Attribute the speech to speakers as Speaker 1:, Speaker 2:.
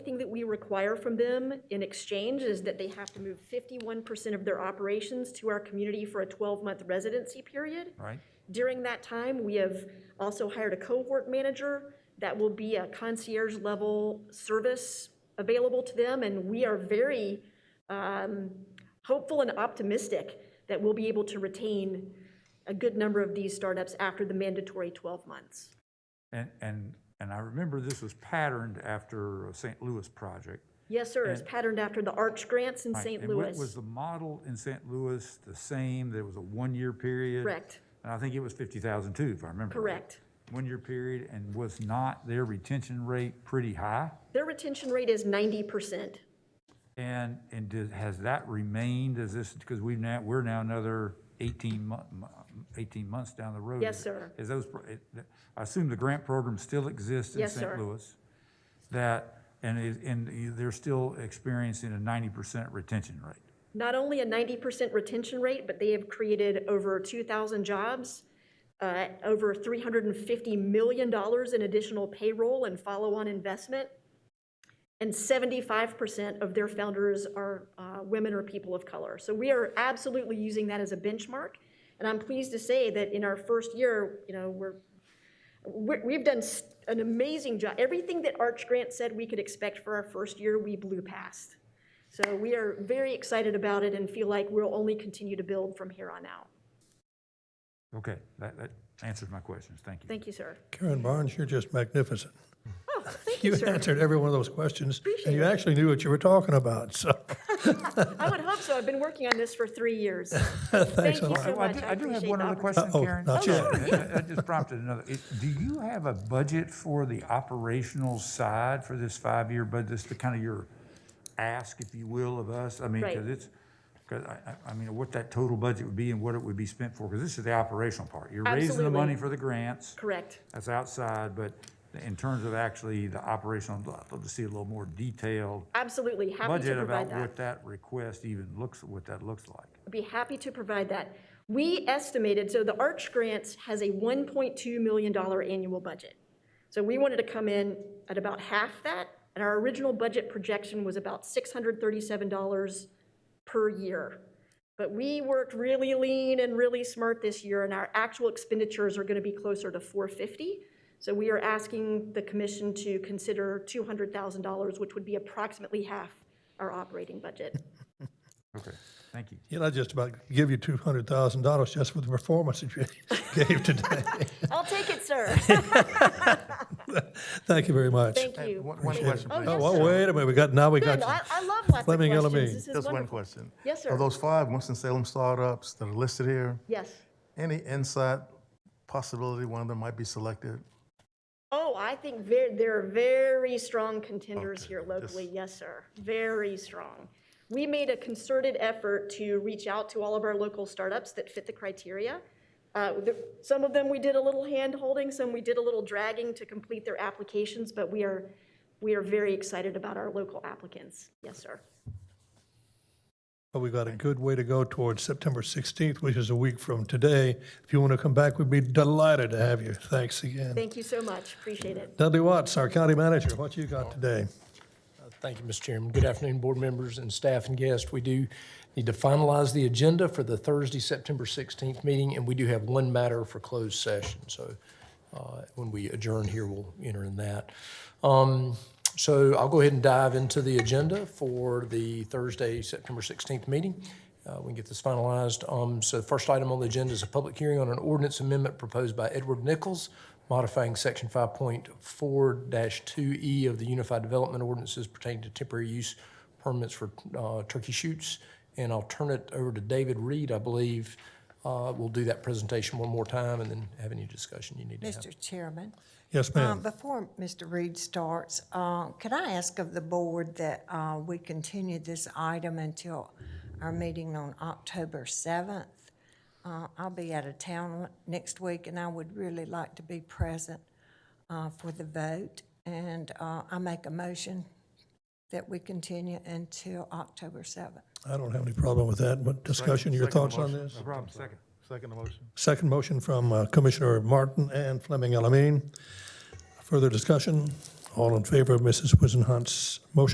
Speaker 1: we require from them in exchange is that they have to move 51% of their operations to our community for a 12-month residency period.
Speaker 2: right?
Speaker 1: During that time, we have also hired a cohort manager that will be a concierge level service available to them. And we are very um, hopeful and optimistic that we'll be able to retain a good number of these startups after the mandatory 12 months.
Speaker 2: And, and, and I remember this was patterned after a St. Louis project.
Speaker 1: Yes, sir, it's
Speaker 2: And-
Speaker 1: patterned after the Arch grants in
Speaker 2: right?
Speaker 1: St.
Speaker 2: And wa-
Speaker 1: Louis.
Speaker 2: Was the model in St. Louis the same? There was a one-year period?
Speaker 1: Correct.
Speaker 2: And I think it was 50,000 too, if I remember. right.
Speaker 1: Correct.
Speaker 2: One-year period, and was not their retention rate pretty high?
Speaker 1: Their retention rate is 90%.
Speaker 2: And, and did- has that remained, is this, because we've now, we're now another 18 month, 18 months down the road.
Speaker 1: Yes, sir.
Speaker 2: Is those, pro- it- I assume the grant program still exists in
Speaker 1: Yes,
Speaker 2: St.
Speaker 1: sir.
Speaker 2: Louis? That, and is, and they're still experiencing a 90% retention rate?
Speaker 1: Not only a 90% retention rate, but they have created over 2,000 jobs, uh, over $350 million in additional payroll and follow-on investment, and 75% of their founders are uh, women or people of color. So we are absolutely using that as a benchmark, and I'm pleased to say that in our first year, you know, we're we're- We've done s- an amazing job. Everything that Arch Grant said we could expect for our first year, we blew past. So we are very excited about it and feel like we'll only continue to build from here on out.
Speaker 2: Okay, that, that answers my questions, thank you.
Speaker 1: Thank you, sir.
Speaker 3: Karen Barnes, you're just magnificent.
Speaker 1: Oh, thank you,
Speaker 3: You
Speaker 1: sir.
Speaker 3: answered every one of those questions, and you actually knew what you were talking about, so
Speaker 1: I would hope so. I've been working on this for three years.
Speaker 3: thanks a
Speaker 1: you,
Speaker 3: lot.
Speaker 1: sir. so
Speaker 2: Well, I
Speaker 1: much.
Speaker 2: do-
Speaker 1: I
Speaker 2: I do have
Speaker 1: appreciate
Speaker 2: one
Speaker 1: the Oh,
Speaker 2: other question,
Speaker 3: opportunity.
Speaker 2: Karen.
Speaker 3: Uh-oh, not
Speaker 2: Sorry,
Speaker 3: yet.
Speaker 2: that- That just prompted another. It- Do you have a budget for the operational side for this five-year budget, Just the kind of your ask, if you will, of us? I mean,
Speaker 1: Right.
Speaker 2: because it's, because I, I- I mean, what that total budget would be and what it would be spent for, because this is the operational part. You're raising the
Speaker 1: Absolutely.
Speaker 2: money for the grants,
Speaker 1: Correct.
Speaker 2: that's outside, but in terms of actually the operational, I'd love to see a little more detailed
Speaker 1: Absolutely. Happy to
Speaker 2: budget about
Speaker 1: provide that.
Speaker 2: what that request even looks, what that looks like.
Speaker 1: I'd be happy to provide that. We estimated, so the Arch Grants has a $1.2 million annual budget. So we wanted to come in at about half that, and our original budget projection was about $637 per year. But we worked really lean and really smart this year, and our actual expenditures are going to be closer to 450. So we are asking the commission to consider $200,000, which would be approximately half our operating budget.
Speaker 2: Okay, thank you.
Speaker 3: you know, I just about give you two hundred thousand dollars just for the performance that you gave today.
Speaker 1: I'll take it, sir.
Speaker 3: Thank you very much.
Speaker 1: Thank you.
Speaker 4: One one question,
Speaker 1: Oh,
Speaker 4: please.
Speaker 3: Oh,
Speaker 1: yes,
Speaker 3: well,
Speaker 1: sir.
Speaker 3: wait a minute, we got, now we
Speaker 1: Good, I,
Speaker 3: got,
Speaker 1: I love lots of
Speaker 3: Fleming
Speaker 1: questions.
Speaker 3: LME.
Speaker 1: This is
Speaker 4: Just one
Speaker 1: wonderful.
Speaker 4: question.
Speaker 1: Yes, sir.
Speaker 4: Of those five Winston-Salem startups that are listed here,
Speaker 1: Yes.
Speaker 4: any insight possibility one of them might be selected?
Speaker 1: Oh, I think there, there are very strong contenders
Speaker 4: Okay,
Speaker 1: here
Speaker 4: just-
Speaker 1: locally. Yes, sir. Very strong. We made a concerted effort to reach out to all of our local startups that fit the criteria. Uh, the- Some of them, we did a little hand holding, some we did a little dragging to complete their applications, but we are, we are very excited about our local applicants. Yes, sir.
Speaker 3: we got a good way to go towards September sixteenth, which is a week from today. If you want to come back, we'd be delighted to have you. Thanks again.
Speaker 1: Thank you so much. Appreciate it.
Speaker 3: Dudley Watts, our county manager, what you got today?
Speaker 5: Thank you, Mr. Chairman. Good afternoon, board members and staff and guests. We do need to finalize the agenda for the Thursday, September 16th meeting, and we do have one matter for closed session. So uh, when we adjourn here, we'll enter in that. Um, So I'll go ahead and dive into the agenda for the Thursday, September 16th meeting. Uh, We can get this finalized. Um, So first item on the agenda is a public hearing on an ordinance amendment proposed by Edward Nichols modifying Section 5.4-2E E of the Unified Development Ordinances pertaining to temporary use permits for uh, turkey shoots. And I'll turn it over to David Reed, I believe. Uh, We'll do that presentation one more time and then have any discussion you need to have.
Speaker 6: Mr. Chairman.
Speaker 3: Yes,
Speaker 6: um,
Speaker 3: ma'am.
Speaker 6: Before Mr. Reed starts, uh, could I ask of the board that uh, we continue this item until our meeting on October 7th? Uh, I'll be out of town next week, and I would really like to be present uh, for the vote. And uh, I make a motion that we continue until October 7th.
Speaker 3: I don't have any problem with that, but discussion, your
Speaker 4: Second
Speaker 3: thoughts on
Speaker 4: motion.
Speaker 3: this?
Speaker 4: No problem, second. Second motion.
Speaker 3: Second motion from uh, Commissioner Martin and Fleming Elamine. Further discussion? All in favor of Mrs. Wizenhut's motion?